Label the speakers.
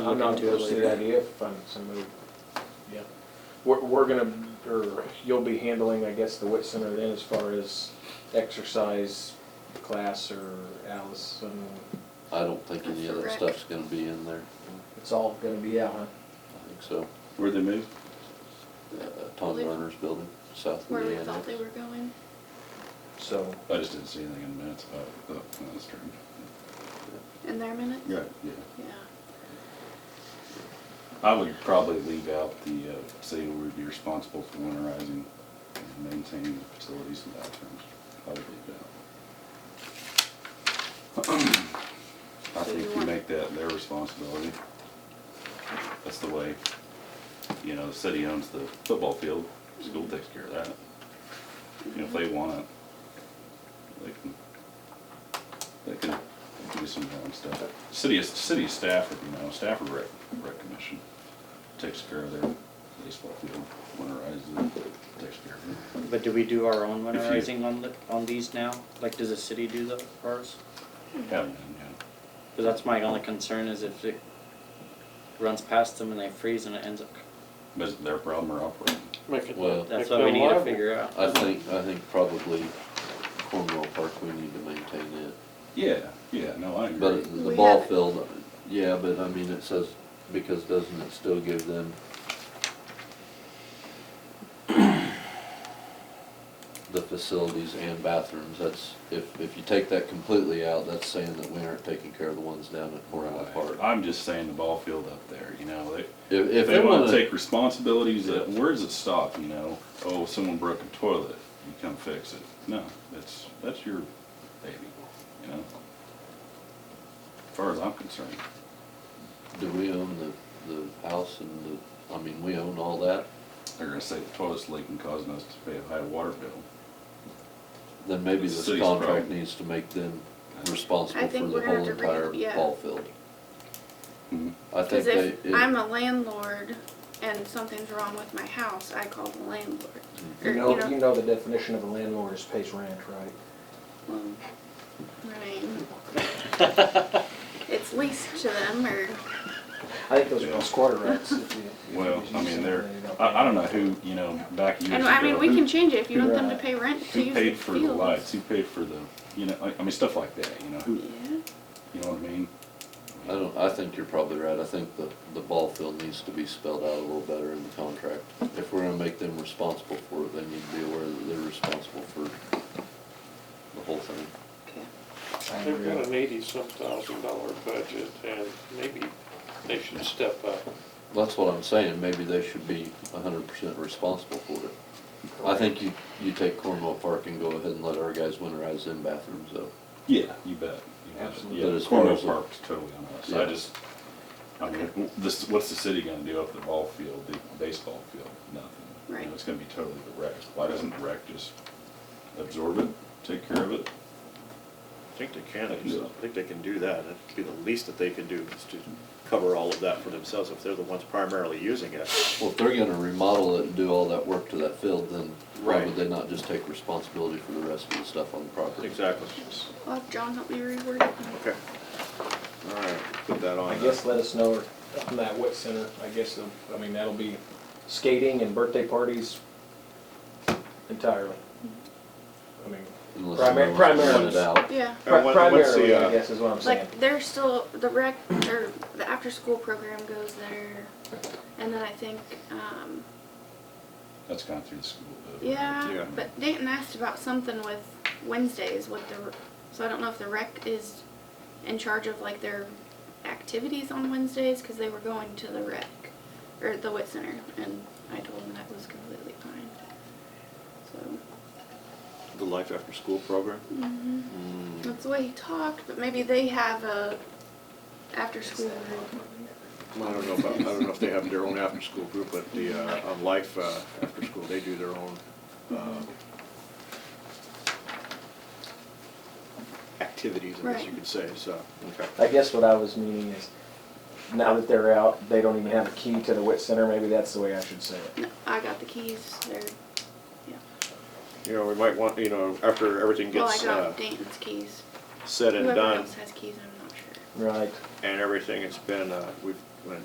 Speaker 1: I'm not too
Speaker 2: Push the
Speaker 1: early.
Speaker 2: idea of finding somebody. Yeah. We're, we're gonna, or you'll be handling, I guess, the WIT Center then as far as exercise class or Allison.
Speaker 3: I don't think any of that
Speaker 4: Correct.
Speaker 3: stuff's gonna be in there,
Speaker 2: It's all gonna be out, huh?
Speaker 3: I think so.
Speaker 5: Where'd they move?
Speaker 3: Uh, Tom
Speaker 4: Well, they-
Speaker 3: Lerner's building, south of
Speaker 4: where we
Speaker 3: the
Speaker 4: thought they
Speaker 3: annex.
Speaker 4: were going.
Speaker 2: So,
Speaker 5: I just didn't see anything in the minutes about the oh, finance term.
Speaker 4: In their minutes?
Speaker 5: Yeah, yeah.
Speaker 4: Yeah.
Speaker 5: I would probably leave out the, uh, city would be responsible for winterizing and maintaining the facilities and bathrooms. I would leave it out. I
Speaker 4: So you
Speaker 5: think you
Speaker 4: want-
Speaker 5: make that their responsibility. That's the way, you know, the city owns the football field, school takes care of that. You know, if they want it, they can, they can do some of their own stuff. City, city Stafford, you know, Stafford Rec, Rec Commission takes care of their baseball field, winterizes it, takes care of it.
Speaker 1: But do we do our own
Speaker 5: If you-
Speaker 1: winterizing on, the- on these now? Like, does the city do the ours?
Speaker 5: Have them, you
Speaker 1: Because that's my only concern is if it runs past them and they freeze and it ends up,
Speaker 5: know, is it their problem or operating?
Speaker 6: Make it-
Speaker 3: Well-
Speaker 1: that's
Speaker 6: make
Speaker 1: what we
Speaker 6: them
Speaker 1: need to
Speaker 6: liable.
Speaker 1: figure out.
Speaker 3: I think, I think probably Cornwall Park, we need to maintain it.
Speaker 5: Yeah, yeah, no, I agree.
Speaker 3: But the
Speaker 4: We
Speaker 3: ball
Speaker 4: have-
Speaker 3: field, yeah, but I mean, it says, because doesn't it still give them the facilities and bathrooms, that's, if, if you take that completely out, that's saying that we aren't taking care of the ones down at Cornwall Park.
Speaker 5: I'm just saying the ball field up there, you know, they,
Speaker 3: If,
Speaker 5: if
Speaker 3: if
Speaker 5: they wanna
Speaker 3: take.
Speaker 5: take responsibilities, that,
Speaker 3: Yeah.
Speaker 5: where does it stop, you know? Oh, someone broke a toilet, you come fix it. No, that's, that's your baby, you know? As far as I'm concerned,
Speaker 3: Do we own the, the house and the, I mean, we own all that,
Speaker 5: they're gonna say the toilet's leaking causing us to pay a high water bill.
Speaker 3: then maybe
Speaker 5: The
Speaker 3: this
Speaker 5: city's
Speaker 3: contract
Speaker 5: problem.
Speaker 3: needs to make them
Speaker 4: I
Speaker 3: responsible for
Speaker 4: think
Speaker 3: the
Speaker 4: we're gonna
Speaker 3: whole
Speaker 4: have to
Speaker 3: entire
Speaker 4: re- yeah.
Speaker 3: ball field.
Speaker 5: Mhm.
Speaker 3: I think
Speaker 4: Because
Speaker 3: they.
Speaker 4: Mm-hmm. if
Speaker 3: it-
Speaker 4: I'm a landlord and something's wrong with my house, I call the landlord. Or,
Speaker 2: you know, you know the definition of a landlord is pays rent, right?
Speaker 4: well, right. It's leased to them or,
Speaker 2: I think those are
Speaker 5: Yeah.
Speaker 2: all squatter rights. if you- if you
Speaker 5: Well, I
Speaker 2: use
Speaker 5: mean,
Speaker 2: them,
Speaker 5: they're,
Speaker 2: they don't
Speaker 5: I, I
Speaker 2: pay.
Speaker 5: don't know who, you know, back years
Speaker 4: and
Speaker 5: ago.
Speaker 4: I mean, we
Speaker 5: who-
Speaker 4: can change it if you want them to
Speaker 2: Right.
Speaker 4: pay rent to
Speaker 5: Who
Speaker 4: use the
Speaker 5: paid for the lights,
Speaker 4: fields.
Speaker 5: who paid for the, you know, I, I mean, stuff like that, you know, who,
Speaker 4: Yeah,
Speaker 5: you know what I mean?
Speaker 3: I don't, I think you're probably right, I think the, the ball field needs to be spelled out a little better in the contract. If we're gonna make them responsible for it, they need to be aware that they're responsible for the whole thing.
Speaker 4: okay.
Speaker 2: I
Speaker 6: They've
Speaker 2: agree.
Speaker 6: got an eighty-some thousand dollar budget, and maybe they should step up.
Speaker 3: That's what I'm saying, maybe they should be hundred percent responsible for it. I think you, you take Cornwall Park and go ahead and let our guys winterize them bathrooms though.
Speaker 5: Yeah, you bet. you bet.
Speaker 2: Absolutely.
Speaker 3: But
Speaker 5: Yeah,
Speaker 3: as far
Speaker 5: Cornwall
Speaker 3: as the-
Speaker 5: Park's totally on us.
Speaker 3: Yeah.
Speaker 5: I just, I mean, w- this, what's the city gonna do up the ball field, the baseball field? Nothing. You know,
Speaker 4: Right.
Speaker 5: It's gonna be totally the wreck. Why doesn't the wreck just absorb it, take care of it?
Speaker 7: I think they can, I
Speaker 5: Yeah.
Speaker 7: think they can do that, it'd be the least that they can do, is to cover all of that for themselves, if they're the ones primarily using it.
Speaker 3: Well, if they're gonna remodel it and do all that work to that field, then why would
Speaker 7: Right.
Speaker 3: they not just take responsibility for the rest of the stuff on the property?
Speaker 7: Exactly.
Speaker 4: Well, if John help me reword it.
Speaker 7: Okay. All right, put that on.
Speaker 2: I
Speaker 7: uh,
Speaker 2: guess let us know on that wit center, I guess, um, I mean, that'll be skating and birthday parties entirely. I mean,
Speaker 3: Unless
Speaker 2: primar-
Speaker 3: someone wants to
Speaker 2: primarily,
Speaker 3: rent it out.
Speaker 4: Yeah.
Speaker 7: And
Speaker 2: pri-
Speaker 7: what- what's the,
Speaker 2: primarily, I
Speaker 7: uh,
Speaker 2: guess, is what I'm saying.
Speaker 4: Like they're still the rec or the after school program goes there, and then I think um,
Speaker 5: That's gone through the school. though, right?
Speaker 4: yeah.
Speaker 7: Yeah.
Speaker 4: But Dayton asked about something with Wednesdays with the, so I don't know if the rec is in charge of like their activities on Wednesdays because they were going to the rec or the wit center, and I told them that was completely fine. So
Speaker 7: The life after school program? Hmm,
Speaker 4: mhm. that's the way he talked, but maybe they have a after school group.
Speaker 7: Well, I don't know about, I don't know if they have their own after-school group, but the, uh, on life, uh, after school, they do their own, um, activities, I guess you
Speaker 4: Right.
Speaker 7: could say, so, okay.
Speaker 2: I guess what I was meaning is, now that they're out, they don't even have a key to the wit center, maybe that's the way I should say it.
Speaker 4: No, I got the keys. They're
Speaker 7: You know, we might want, you know, after everything
Speaker 4: Well, I
Speaker 7: gets, uh,
Speaker 4: got Dayton's keys.
Speaker 7: said and
Speaker 4: Whoever
Speaker 7: done,
Speaker 4: else has keys, I'm not sure.
Speaker 2: Right,
Speaker 7: and everything, it's been, uh, we've